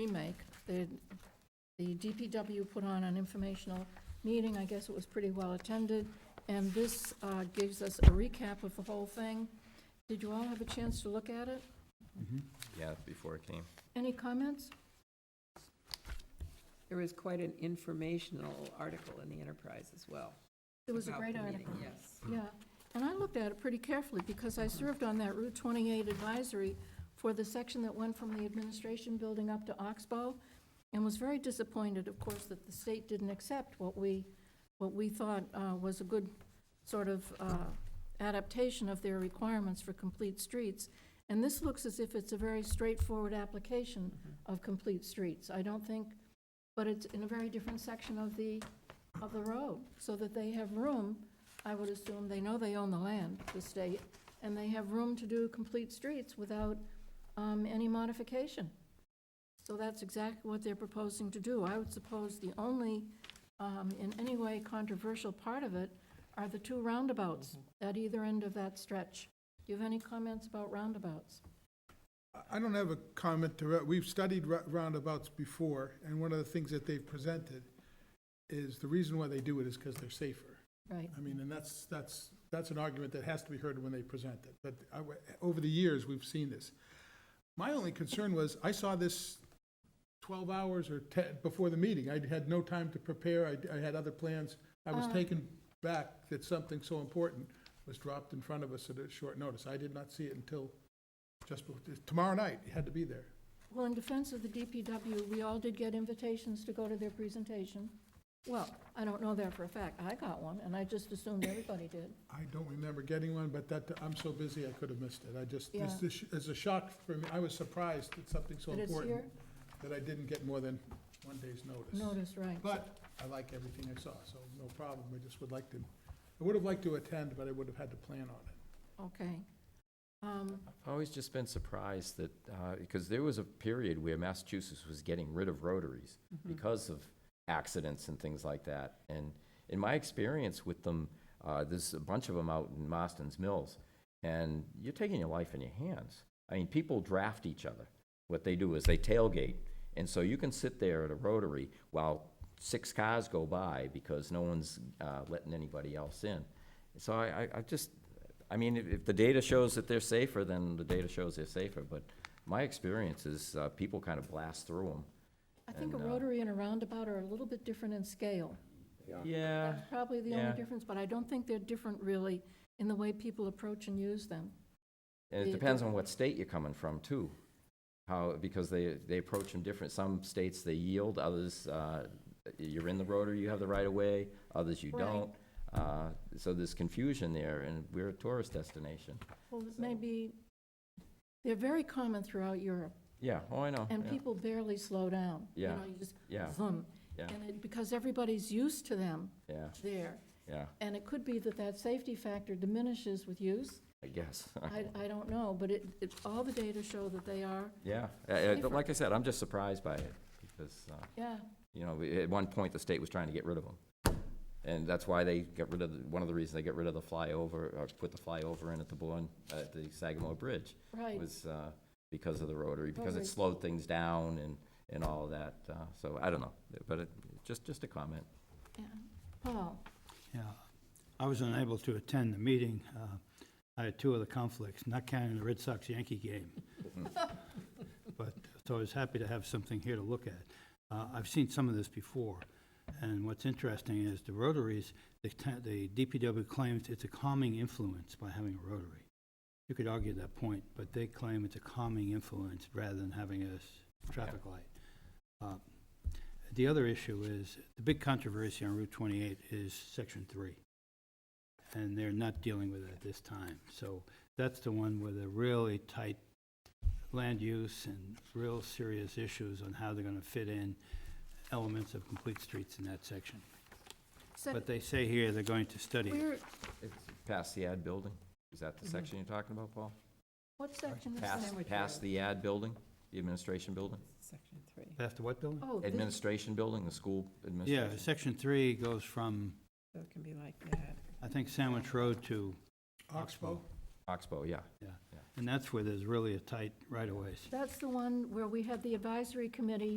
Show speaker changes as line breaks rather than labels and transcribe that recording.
remake. The, the DPW put on an informational meeting, I guess it was pretty well attended, and this uh, gives us a recap of the whole thing. Did you all have a chance to look at it?
Yeah, before it came.
Any comments?
There was quite an informational article in the Enterprise as well.
It was a
about
great
the
article.
meeting, Yes.
Yeah, and I looked at it pretty carefully, because I served on that Route 28 advisory for the section that went from the administration building up to Oxbow, and was very disappointed, of course, that the state didn't accept what we, what we thought uh, was a good sort of uh, adaptation of their requirements for complete streets. And this looks as if it's a very straightforward application of complete streets. I don't think, but it's in a very different section of the, of the road, so that they have room I would assume they know they own the land, the state, and they have room to do complete streets without um, any modification. So that's exactly what they're proposing to do. I would suppose the only, um, in any way controversial part of it are the two roundabouts at either end of that stretch. Do you have any comments about roundabouts?
I- I don't have a comment to, it. we've studied rou- roundabouts before, and one of the things that they've presented is the reason why they do it is because they're safer.
Right,
I mean, and that's, that's, that's an argument that has to be heard when they present it, but I w over the years, we've seen this. My only concern was, I saw this twelve hours or ten, before the meeting, I had no time to prepare, I, I had other plans. I
Uh.
was taken back that something so important was dropped in front of us at a short notice. I did not see it until just, bef- tomorrow night, it had to be there.
Well, in defense of the DPW, we all did get invitations to go to their presentation. Well, I don't know that for a fact. I got one, and I just assumed everybody did.
I don't remember getting one, but that, I'm so busy, I could have missed it. I just,
Yeah.
this is it's a shock for me. I was surprised that something so
That it's
important,
here?
that I didn't get more than one day's notice.
Notice, right.
But I like everything I saw, so no problem. I just would like to, I would have liked to attend, but I would have had to plan on it.
Okay. Um,
I've always just been surprised that, uh, because there was a period where Massachusetts was getting rid of rotaries because of accidents and things like that. And in my experience with them, uh, there's a bunch of them out in Marston's Mills, and you're taking your life in your hands. I mean, people draft each other. What they do is they tailgate. And so you can sit there at a rotary while six cars go by because no one's uh, letting anybody else in. So I, I, I just, I mean, if, if the data shows that they're safer, then the data shows they're safer. But my experience is uh, people kind of blast through them.
I think a
And, uh,
rotary and a roundabout are a little bit different in scale.
Yeah.
That's probably the only
yeah.
difference, but I don't think they're different really in the way people approach and use them.
And
the-
it depends on what state you're coming from too. How, because they, they approach them different. Some states they yield, others, uh, you're in the rotary, you have the right of way, others you
Right.
don't. Uh, So there's confusion there and we're a tourist destination.
Well, maybe, they're very common throughout Europe,
Yeah, oh, I know.
and
yeah,
people barely slow down. You
Yeah.
know, you just
Yeah,
vroom.
Yeah.
And it, because everybody's used to them
yeah,
there,
yeah,
and it could be that that safety factor diminishes with use.
I guess.
I, I don't know, but it, it, all the data show that they are,
Yeah, uh, uh,
Safer.
like I said, I'm just surprised by it because, uh,
yeah.
you know, we- at one point, the state was trying to get rid of them. And that's why they got rid of, the- one of the reasons they got rid of the flyover, or put the flyover in at the Bourne, at the Sagamore Bridge.
Right,
was uh, because of the rotary, because
Rotary.
it slowed things down and, and all of that. uh, So I don't know, but it, just, just a comment.
yeah. Paul,
Yeah, I was unable to attend the meeting. Uh, I had two other conflicts, not counting the Red Sox Yankee game. But, so I was happy to have something here to look at. Uh, I've seen some of this before, and what's interesting is the rotaries, the ta- the DPW claims it's a calming influence by having a rotary. You could argue that point, but they claim it's a calming influence rather than having a s- traffic light. Uh, the other issue is, the big controversy on Route 28 is Section 3. And they're not dealing with it at this time. So that's the one with a really tight land use and real serious issues on how they're going to fit in elements of complete streets in that section.
said,
But they say here they're going to study it.
where,
It's Past the ad building, is that the section you're talking about, Paul?
what section is that?
Past,
Sandwich
past
road.
the ad building, the administration building?
Section three.
After what building?
Oh, thi-
Administration building, the school
Yeah,
administration?
Section 3 goes from,
So it can be like that.
I think, Sandwich Road to
Oxbow?
Oxbow.
Oxbow, yeah.
And that's where there's really a tight right-of-ways.
That's the one where we had the advisory committee